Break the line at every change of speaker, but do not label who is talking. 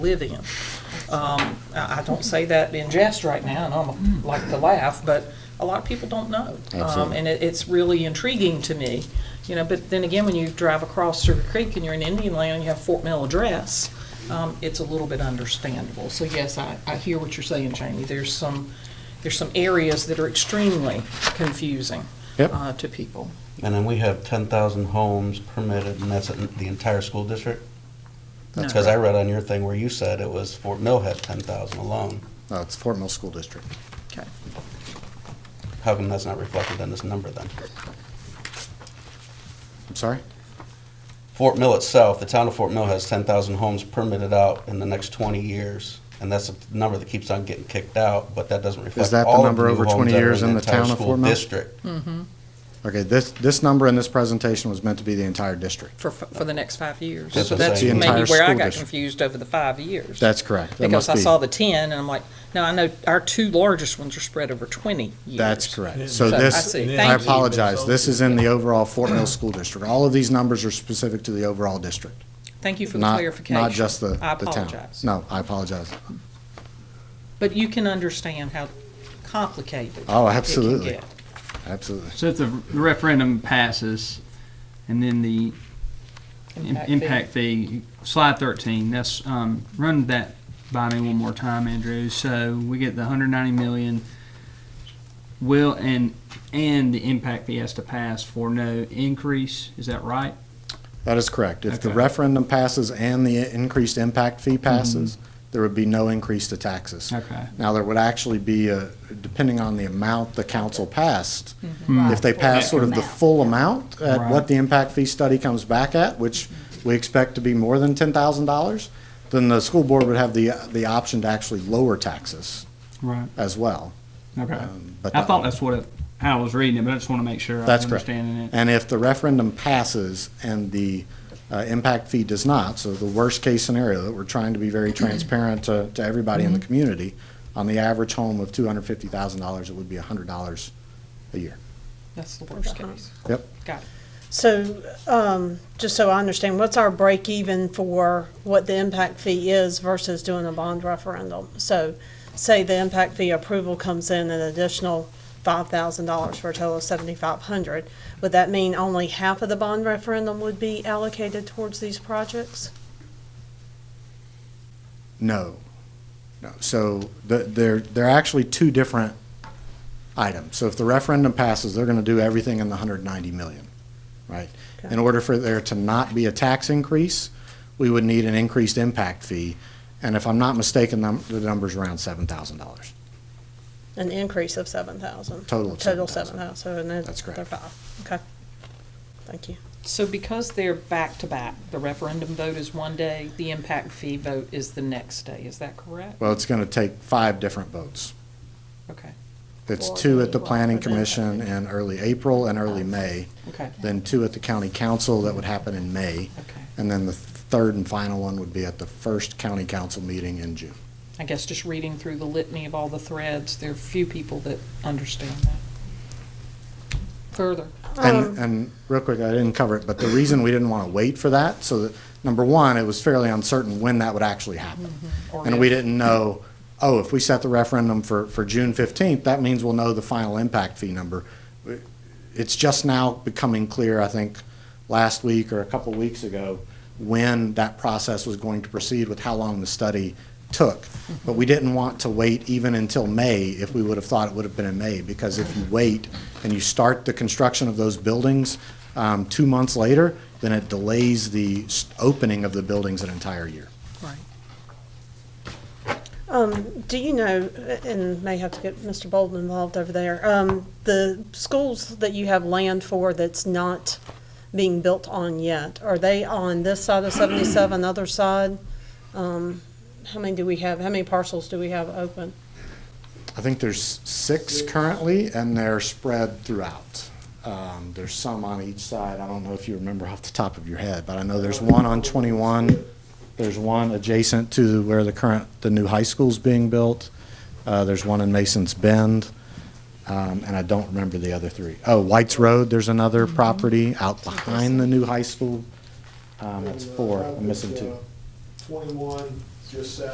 live in. Um, I, I don't say that in jest right now, and I'm like to laugh, but a lot of people don't know. Um,
Absolutely.
and it, it's really intriguing to me, you know, but then again, when you drive across Sugar Creek and you're in Indian Land and you have Fort Mill address, um, it's a little bit understandable. So yes, I, I hear what you're saying, Jamie. There's some, there's some areas that are extremely confusing
Yep.
uh, to people.
And then we have ten thousand homes permitted, and that's in the entire school district? That's because I read on your thing where you said it was Fort Mill had ten thousand alone.
No, it's Fort Mill School District.
Okay.
How come that's not reflected in this number then?
I'm sorry?
Fort Mill itself, the town of Fort Mill has ten thousand homes permitted out in the next twenty years. And that's a number that keeps on getting kicked out, but that doesn't reflect
that the
all of the
number
new
over
homes
20
that are
years in
in the
the town
entire
of
school
Fort Mill?
district.
Okay, this, this number in this presentation was meant to be the entire district.
For, for the next five years.
That's
So
what
that's
I'm saying.
maybe
The
entire
where I
school
got
district.
confused over the five years.
That's correct. That
Because
must
I
be-
saw the ten, and I'm like, no, I know our two largest ones are spread over twenty years.
That's correct. So
So, I
this,
see.
I
Thank you.
apologize, this is in the overall Fort Mill School District. All of these numbers are specific to the overall district,
Thank you for the
not,
clarification.
not just the, the town.
I apologize.
No, I apologize.
But you can understand how complicated.
Oh,
it can
absolutely.
get.
Absolutely.
So if the the referendum passes, and then the im-
Impact fee.
impact fee, slide thirteen, that's, um, run that by me one more time, Andrew. So we get the hundred ninety million, will, and, and the impact fee has to pass for no increase, is that right?
That is correct. If the
Okay. Mm-hmm.
referendum passes and the increased impact fee passes, there would be no increase to taxes.
Okay.
Now, there would actually be, a- depending on the amount the council passed,
Mm-hmm. Right,
if they
for
pass sort of the
amount.
full amount at what
Right.
the impact fee study comes back at, which we expect to be more than $10,000, then the school board would have the, the option to actually lower taxes
Right.
as well.
Okay.
Um, but
I
that-
thought that's what, it- how I was reading it, but I just wanna make sure I
That's
was
correct.
understanding it.
And if the referendum passes and the uh, impact fee does not, so the worst-case scenario, that we're trying to be very transparent to, to everybody in the community, on the average home of $250,000, it would be $100 a year.
That's the worst case.
Yep.
Got it.
So, um, just so I understand, what's our break even for what the impact fee is versus doing a bond referendum? So, say the impact fee approval comes in an additional five thousand dollars for a total of seventy-five hundred. Would that mean only half of the bond referendum would be allocated towards these projects?
No. No. So the, they're, they're actually two different items. So if the referendum passes, they're going to do everything in the 190 million, right? In order for there to not be a tax increase, we would need an increased impact fee. And if I'm not mistaken, num- the number's around $7,000.
An increase of seven thousand?
Total of
Total
$7,000.
seven thousand, so and then.
That's correct.
they're five, okay. Thank you.
So because they're back to back, the referendum vote is one day, the impact fee vote is the next day. Is that correct?
Well, it's going to take five different votes.
Okay,
It's
Or
two at the
maybe
planning
one for them.
commission in early April and early May,
okay,
then two at the county council that would happen in May.
okay.
And then the third and final one would be at the first county council meeting in June.
I guess just reading through the litany of all the threads, there are few people that understand that. Further,
And, and real quick, I didn't cover it, but the reason we didn't want to wait for that, so that, number one, it was fairly uncertain when that would actually happen.
or
And we
if-
didn't know, oh, if we set the referendum for, for June fifteenth, that means we'll know the final impact fee number. It's just now becoming clear, I think, last week or a couple weeks ago, when that process was going to proceed with how long the study took. But we didn't want to wait even until May if we would have thought it would have been in May, because if you wait and you start the construction of those buildings, um, two months later, then it delays the s- opening of the buildings an entire year.
Right.
Um, do you know, and may have to get Mr. Bolden involved over there, um, the schools that you have land for that's not being built on yet, are they on this side of seventy-seven, other side? Um, how many do we have, how many parcels do we have open?
I think there's six currently, and they're spread throughout. Um, There's some on each side. I don't know if you remember off the top of your head, but I know there's one on 21. There's one adjacent to where the current, the new high school's being built. Uh, There's one in Mason's Bend, um, and I don't remember the other three. Oh, White's Road, there's another property out behind the new high school. Um, That's four. I'm missing two.
Twenty-one, just said